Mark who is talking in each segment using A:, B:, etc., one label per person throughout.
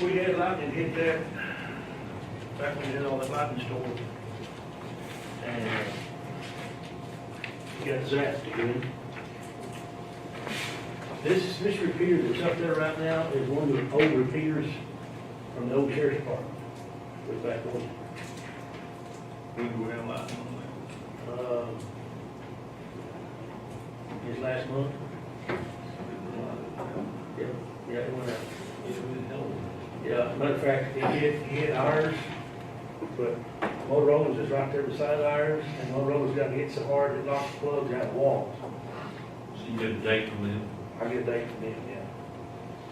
A: We had lightning hit that, back when we did all that lightning storm. And uh, got zapped again. This, this repeater that's up there right now is one of the old repeaters from the old sheriff's department. Was back on.
B: When do we have lightning on
A: um, This last month. Yeah, yeah, it went out.
B: that? It really don't.
A: Yeah, matter of fact, it hit, it hit ours, but Motorola's is right there beside ours, and Motorola's got hit so hard it knocked the plugs out of walls.
B: So you get a date from them?
A: I get a date from them, yeah.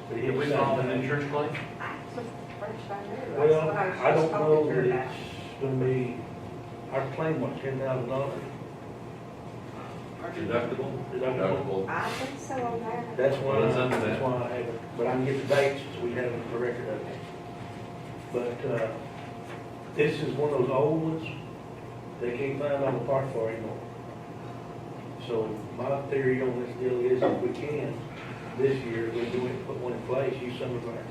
A: But it hit
B: We
A: so
B: filed an
A: bad.
B: insurance claim?
A: Well, I don't know that it's gonna be, our claim was ten thousand dollars.
B: Deductible?
C: I think so on that.
A: That's why,
B: Well, it's under
A: that's
B: that.
A: why I have it, but I can get the dates, so we have the record of it. But, uh, this is one of those old ones, they can't find on the park for anymore. So my theory on this deal is if we can, this year, we do it, put one in place, use some of our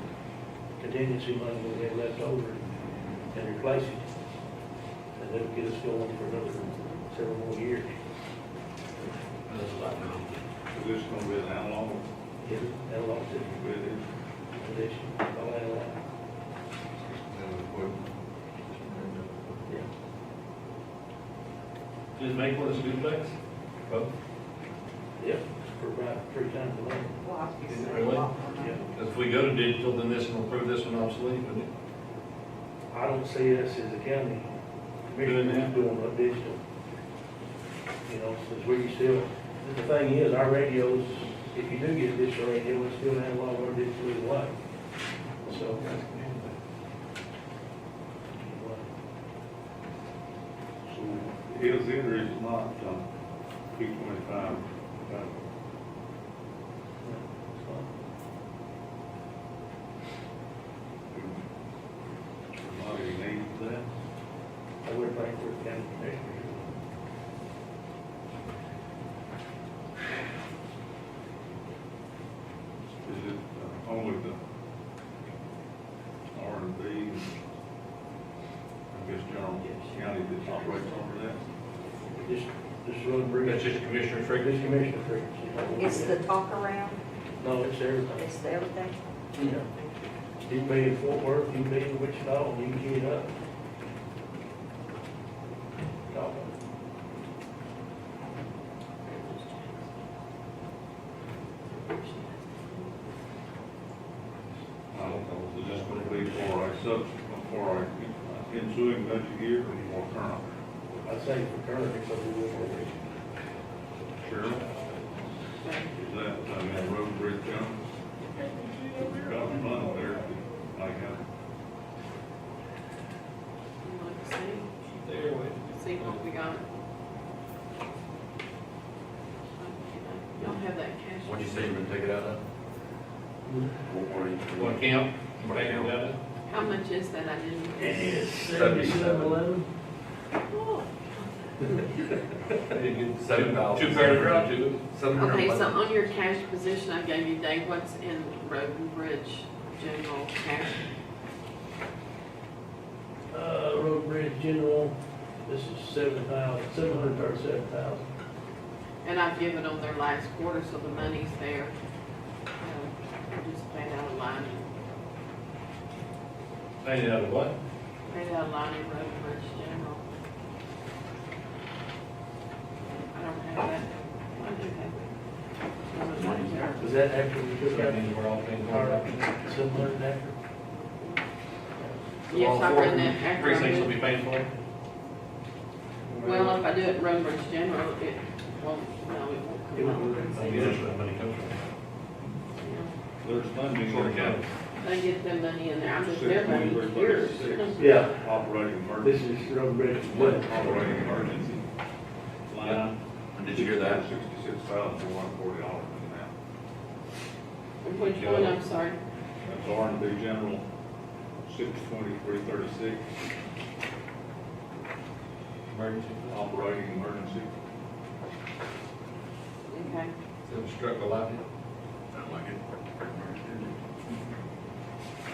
A: contingency money that we have left over and replace it. And that'll get us going for another several more years.
B: So this is gonna be an how long?
A: Yeah, that'll all do. condition, all that, all that. Yeah.
B: Just make one as good place? Well,
A: Yep, for about three times a month.
C: Well, I think so.
B: Really?
A: Yeah.
B: if we go to digital, then this will prove this one obsolete, wouldn't it?
A: I don't see us as a county commissioner
B: that?
A: doing a digital. You know, since we still, the thing is, our radios, if you do get a digital radio, we still have a lot of our digital in the way. So.
D: So His entry is not, um, P twenty-five, uh, not even need um, for that.
A: I would like for a county commissioner.
D: Is it uh, only the R and B, I guess, general county that operates under that?
A: Just, just run bridge.
B: That's just commissioner frequency.
A: Just commissioner frequency. you know, we
C: It's
A: do
C: the
A: that.
C: talk around,
A: No, it's everything.
C: it's the everything.
A: Yeah. You be in Fort Worth, you be in Wichita, and you can get up. Talk.
D: I don't know, is it just gonna be for a subsequent, for a ensuing budget year or more current?
A: I'd say for current, it's a little over.
D: Sure. Is that, I mean, road bridge county? Got a fund there, like, uh,
E: See what we got. Y'all have that cash.
F: What'd you say you're gonna take it out of? What were you-
B: What camp? Backing it up?
E: How much is that? I didn't.
F: Seventy-seven.
A: eleven?
E: Oh.
F: Seven thousand.
B: Two pair of ground tubes.
F: Seven hundred
E: Okay, so
F: eleven.
E: on your cash position I gave you, Dave, what's in road and bridge general cash?
A: Uh, road bridge general, this is seven thousand, seven hundred thirty-seven thousand.
E: And I've given them their last quarter, so the money's there. Um, we Just paid out a line,
B: Paid out of what?
E: paid out a line in road and bridge general. I don't have that. I do have it.
F: Money's there.
A: Was that after we took
B: That
A: out
B: means we're all paying.
A: the car, seven hundred after?
E: Yes, I read that after I
B: Precincts will
E: did.
B: be paying for it.
E: Well, if I do it road bridge general, it won't, no, it
A: It
E: won't
A: won't
E: come
A: work.
E: out.
B: Yeah, that's where that money comes from.
E: Yeah.
D: there's funding.
B: For the county.
E: They get their money in there, I'm just, their money's yours.
D: 62336.
A: Yeah,
D: Operating emergency.
A: this is road bridge.
D: What operating emergency line?
F: Did you hear that?
D: Sixty-six thousand, four hundred and forty dollars in that.
E: Which one, I'm sorry?
D: That's R and B general, six twenty-three thirty-six,
B: Emergency.
D: operating emergency.
E: Okay.
B: So struck a lightning.
F: Sound like it.